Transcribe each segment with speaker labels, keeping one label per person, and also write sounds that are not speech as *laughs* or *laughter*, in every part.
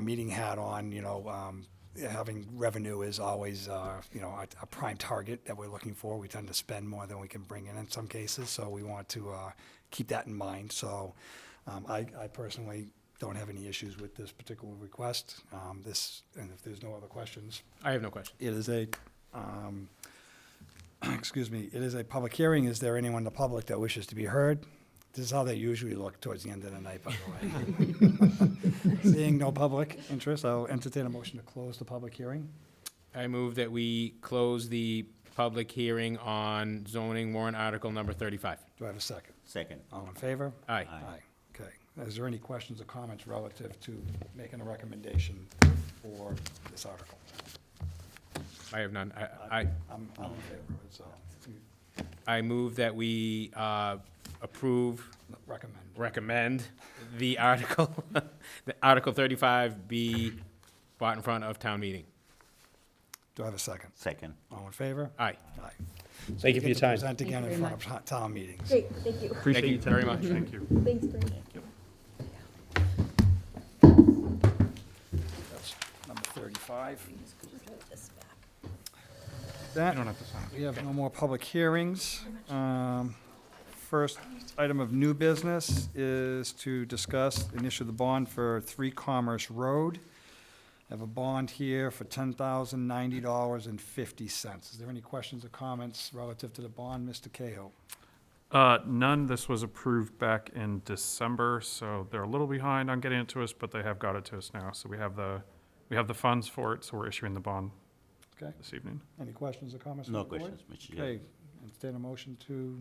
Speaker 1: meeting hat on, you know, um, having revenue is always, uh, you know, a, a prime target that we're looking for. We tend to spend more than we can bring in in some cases, so we want to uh, keep that in mind. So um, I, I personally don't have any issues with this particular request. Um, This, and if there's no other questions,
Speaker 2: I have no question.
Speaker 1: it is a, um, *clears throat* excuse me, it is a public hearing. Is there anyone in the public that wishes to be heard? This is how they usually look towards the end of the night, by the way. *laughs* Seeing no public interest, I'll entertain a motion to close the public hearing.
Speaker 2: I move that we close the public hearing on zoning warrant article number 35.
Speaker 1: Do I have a second?
Speaker 3: Second.
Speaker 1: All in favor?
Speaker 2: Aye.
Speaker 3: Aye.
Speaker 1: Okay. Is there any questions or comments relative to making a recommendation for this article?
Speaker 2: I have none. I, I,
Speaker 1: I'm, I'm in favor of it, so you
Speaker 2: I move that we uh, approve,
Speaker 1: recommend.
Speaker 2: recommend the article, *laughs* the Article 35 be brought in front of town meeting.
Speaker 1: Do I have a second?
Speaker 3: Second.
Speaker 1: All in favor?
Speaker 2: Aye.
Speaker 1: Aye.
Speaker 4: Thank you for your time.
Speaker 1: Present again
Speaker 5: Thank
Speaker 1: in
Speaker 5: you
Speaker 1: front
Speaker 5: very
Speaker 1: of to- town meetings.
Speaker 5: Great, thank you.
Speaker 2: Thank you very much.
Speaker 4: Thank you.
Speaker 5: Thanks, Brent.
Speaker 3: Thank you.
Speaker 1: That's number 35.
Speaker 5: This back.
Speaker 1: That,
Speaker 4: You don't have to sign.
Speaker 1: we have no more public hearings. Um, First item of new business is to discuss and issue the bond for Three Commerce Road. I have a bond here for $10,090.50. Is there any questions or comments relative to the bond, Mr. Cahill?
Speaker 4: Uh, none, this was approved back in December, so they're a little behind on getting it to us, but they have got it to us now. So we have the, we have the funds for it, so we're issuing the bond
Speaker 1: Okay,
Speaker 4: this evening.
Speaker 1: any questions or comments? from
Speaker 3: No
Speaker 1: the board?
Speaker 3: questions, Mr. Chair.
Speaker 1: Okay, entertain a motion to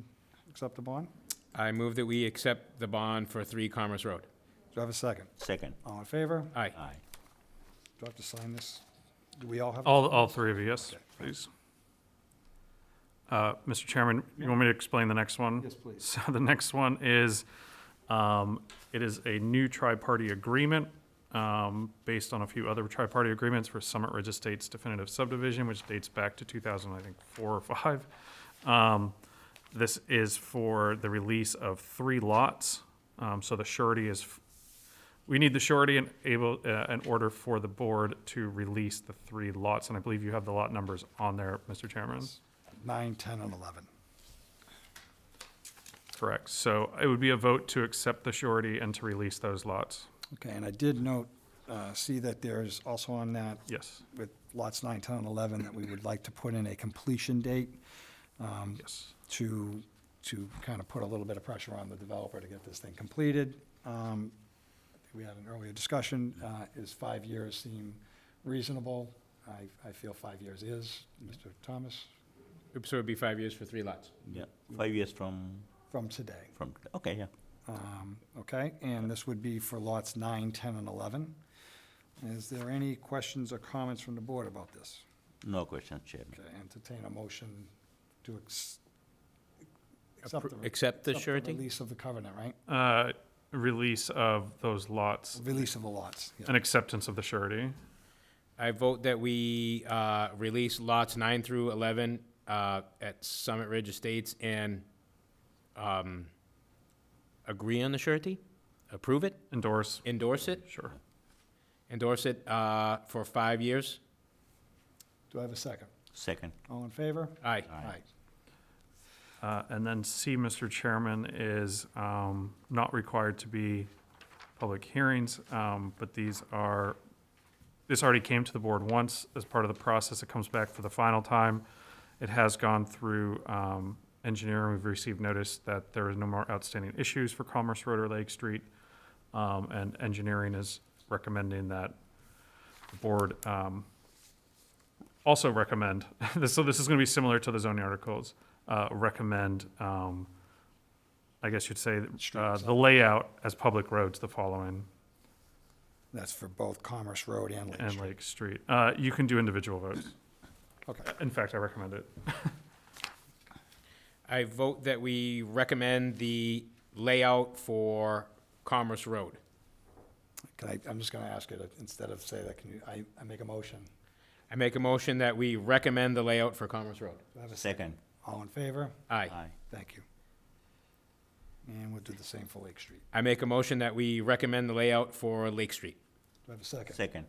Speaker 1: accept the bond?
Speaker 2: I move that we accept the bond for 3 Commerce Road.
Speaker 1: Do I have a second?
Speaker 3: Second.
Speaker 1: All in favor?
Speaker 2: Aye.
Speaker 3: Aye.
Speaker 1: Do I have to sign this? Do we all have?
Speaker 4: All, all three of you, yes, please. Uh, Mr. Chairman, you want me to explain the next one?
Speaker 1: Yes, please.
Speaker 4: So the next one is, um, it is a new tri-party agreement, um, based on a few other tri-party agreements for Summit Ridge Estates definitive subdivision, which dates back to two thousand, I think, four or five. Um, this is for the release of three lots, um, so the surety is, f- we need the surety and able, uh, in order for the board to release the three lots, and I believe you have the lot numbers on there, Mr. Chairman.
Speaker 1: Nine, 10, and 11.
Speaker 4: Correct. So it would be a vote to accept the surety and to release those lots.
Speaker 1: Okay, and I did note, uh, see that there's also on that
Speaker 4: Yes,
Speaker 1: with lots 9, 10, and 11, that we would like to put in a completion date um,
Speaker 4: yes.
Speaker 1: to, to kind of put a little bit of pressure on the developer to get this thing completed. Um, We had an earlier discussion, uh, is five years seem reasonable? I, I feel five years is, Mr. Thomas,
Speaker 2: So it'd be five years for three lots.
Speaker 3: Yeah. Five years from,
Speaker 1: from today.
Speaker 3: from, okay, yeah.
Speaker 1: Um, Okay, and this would be for lots 9, 10, and 11. Is there any questions or comments from the board about this?
Speaker 3: No questions, Chairman.
Speaker 1: Okay, entertain a motion to ex- accept the.
Speaker 2: Appro- accept the
Speaker 1: accept
Speaker 2: surety?
Speaker 1: Release of the covenant, right?
Speaker 4: Uh, Release of those lots
Speaker 1: Release of the lots, yeah.
Speaker 4: and acceptance of the surety.
Speaker 2: I vote that we uh, release lots nine through 11 uh, at Summit Ridge Estates and um, agree on the surety, approve it,
Speaker 4: Endorse,
Speaker 2: endorse it,
Speaker 4: sure.
Speaker 2: endorse it uh, for five years.
Speaker 1: Do I have a second?
Speaker 3: Second.
Speaker 1: All in favor?
Speaker 2: Aye.
Speaker 1: Aye.
Speaker 4: Uh, And then C, Mr. Chairman, is um, not required to be public hearings, um, but these are, this already came to the board once as part of the process. It comes back for the final time. It has gone through um, engineering. We've received notice that there is no more outstanding issues for Commerce Road or Lake Street. Um, And engineering is recommending that the board um, also recommend, *laughs* this- so this is going to be similar to the zoning articles, uh, recommend, um, I guess you'd say, uh,
Speaker 1: Streets.
Speaker 4: the layout as public roads the following
Speaker 1: That's for both Commerce Road and Lake
Speaker 4: and
Speaker 1: Street.
Speaker 4: Lake Street. Uh, you can do individual votes.
Speaker 1: Okay,
Speaker 4: In fact, I recommend it.
Speaker 2: I vote that we recommend the layout for Commerce Road.
Speaker 1: can I, I'm just gonna ask you to, instead of say that, can you, I, I make a motion.
Speaker 2: I make a motion that we recommend the layout for Commerce Road.
Speaker 1: Do I have a second?
Speaker 3: Second.
Speaker 1: All in favor?
Speaker 2: Aye.
Speaker 1: Thank you. And we'll do the same for Lake Street.
Speaker 2: I make a motion that we recommend the layout for Lake Street.
Speaker 1: Do
Speaker 6: I have a second?
Speaker 1: Second.